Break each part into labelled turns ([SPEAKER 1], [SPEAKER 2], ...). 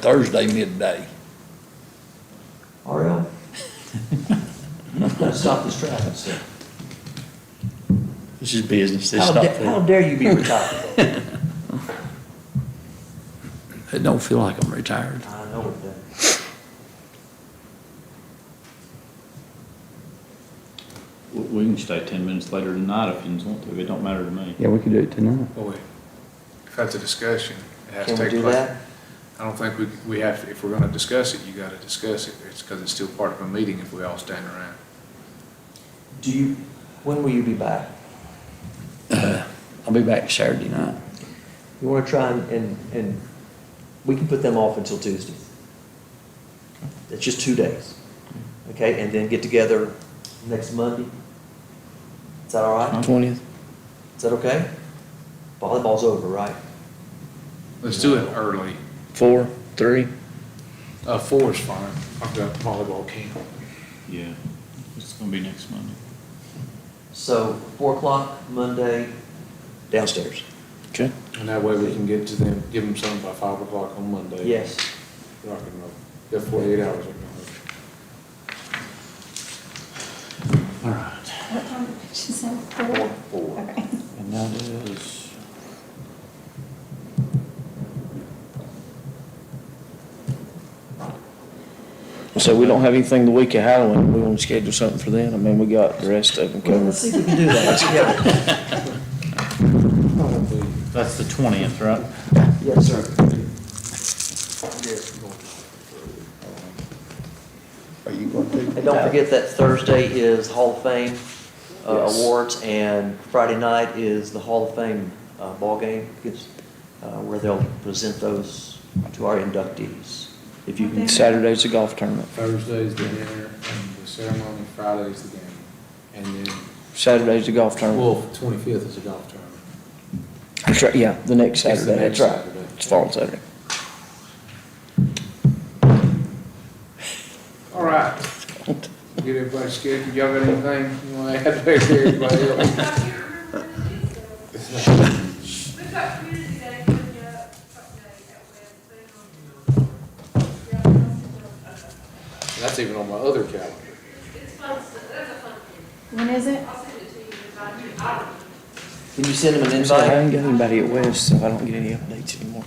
[SPEAKER 1] Thursday midday.
[SPEAKER 2] All right. Let's stop this traffic, sir.
[SPEAKER 3] This is business, this
[SPEAKER 2] How
[SPEAKER 3] is not
[SPEAKER 2] da- how
[SPEAKER 3] food.
[SPEAKER 2] dare you be retired?
[SPEAKER 3] It don't feel like I'm retired.
[SPEAKER 2] I know it does.
[SPEAKER 4] We we can stay ten minutes later tonight if you want to, it don't matter to me.
[SPEAKER 3] Yeah, we could do it tonight.
[SPEAKER 5] Well, we- if that's a discussion, it has to
[SPEAKER 2] Can we
[SPEAKER 5] take
[SPEAKER 2] do
[SPEAKER 5] place.
[SPEAKER 2] that?
[SPEAKER 5] I don't think we, we have, if we're gonna discuss it, you gotta discuss it. It's because it's still part of a meeting if we all stand around.
[SPEAKER 2] Do you, when will you be back?
[SPEAKER 3] I'll be back Saturday night.
[SPEAKER 2] You wanna try and, and, and we can put them off until Tuesday. It's just two days. Okay, and then get together next Monday. Is that all right?
[SPEAKER 3] Twentieth?
[SPEAKER 2] Is that okay? Volleyball's over, right?
[SPEAKER 5] Let's do it early.
[SPEAKER 3] Four, three?
[SPEAKER 5] Uh, four is fine. I've got volleyball camp.
[SPEAKER 4] Yeah, it's gonna be next Monday.
[SPEAKER 2] So four o'clock Monday downstairs.
[SPEAKER 3] Okay.
[SPEAKER 5] And that way we can get to them, give them something by five o'clock on Monday.
[SPEAKER 2] Yes.
[SPEAKER 5] Rock and roll. Got forty-eight hours. I can-
[SPEAKER 4] All right,
[SPEAKER 6] What time did she say?
[SPEAKER 5] Four,
[SPEAKER 6] Four?
[SPEAKER 5] four.
[SPEAKER 6] Okay.
[SPEAKER 4] and that is.
[SPEAKER 7] So we don't have anything the week of Halloween, we wanna schedule something for then, I mean, we got the rest of them
[SPEAKER 2] Well,
[SPEAKER 7] covered.
[SPEAKER 2] let's see if we can do that together.
[SPEAKER 4] That's the twentieth, right?
[SPEAKER 2] Yes, sir.
[SPEAKER 1] Are you going to?
[SPEAKER 2] And don't forget that Thursday is Hall of Fame uh, awards, and Friday night is the Hall of Fame uh, ball game, gets, uh, where they'll present those to our inductees. If you can,
[SPEAKER 7] Saturday's the golf tournament,
[SPEAKER 5] Thursday's the dinner and the ceremony, Friday's the game. And then,
[SPEAKER 7] Saturday's the golf tournament.
[SPEAKER 5] well, twenty-fifth is a golf tournament.
[SPEAKER 7] That's right, yeah, the next
[SPEAKER 5] It's the
[SPEAKER 7] Saturday, that's
[SPEAKER 5] next
[SPEAKER 7] right,
[SPEAKER 5] Saturday.
[SPEAKER 7] it's fall Saturday.
[SPEAKER 5] All right. Get everybody scheduled. Y'all got anything you want to add back there, everybody else?
[SPEAKER 8] I can't remember when it is though. We've got community day coming up, something that Wednesday on. Yeah,
[SPEAKER 5] That's even on my other calendar.
[SPEAKER 8] It's fun, stuff. that's a fun thing.
[SPEAKER 6] When is it?
[SPEAKER 8] I'll send it to you if I do, I don't.
[SPEAKER 2] can you send them an
[SPEAKER 7] So I
[SPEAKER 2] invite?
[SPEAKER 7] haven't got anybody at West, so I don't get any updates anymore.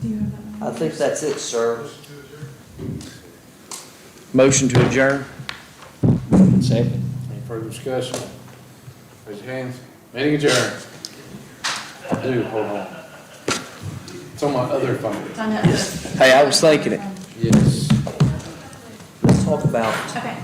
[SPEAKER 6] Do you have
[SPEAKER 2] I think that's it, sir.
[SPEAKER 7] Motion to adjourn?
[SPEAKER 3] Second.
[SPEAKER 5] Any further discussion? Raise your hands. Meeting adjourned. Dude, hold on. It's on my other phone.
[SPEAKER 6] that?
[SPEAKER 7] Hey, I was thinking it.
[SPEAKER 5] Yes.
[SPEAKER 2] Let's talk about
[SPEAKER 6] Okay.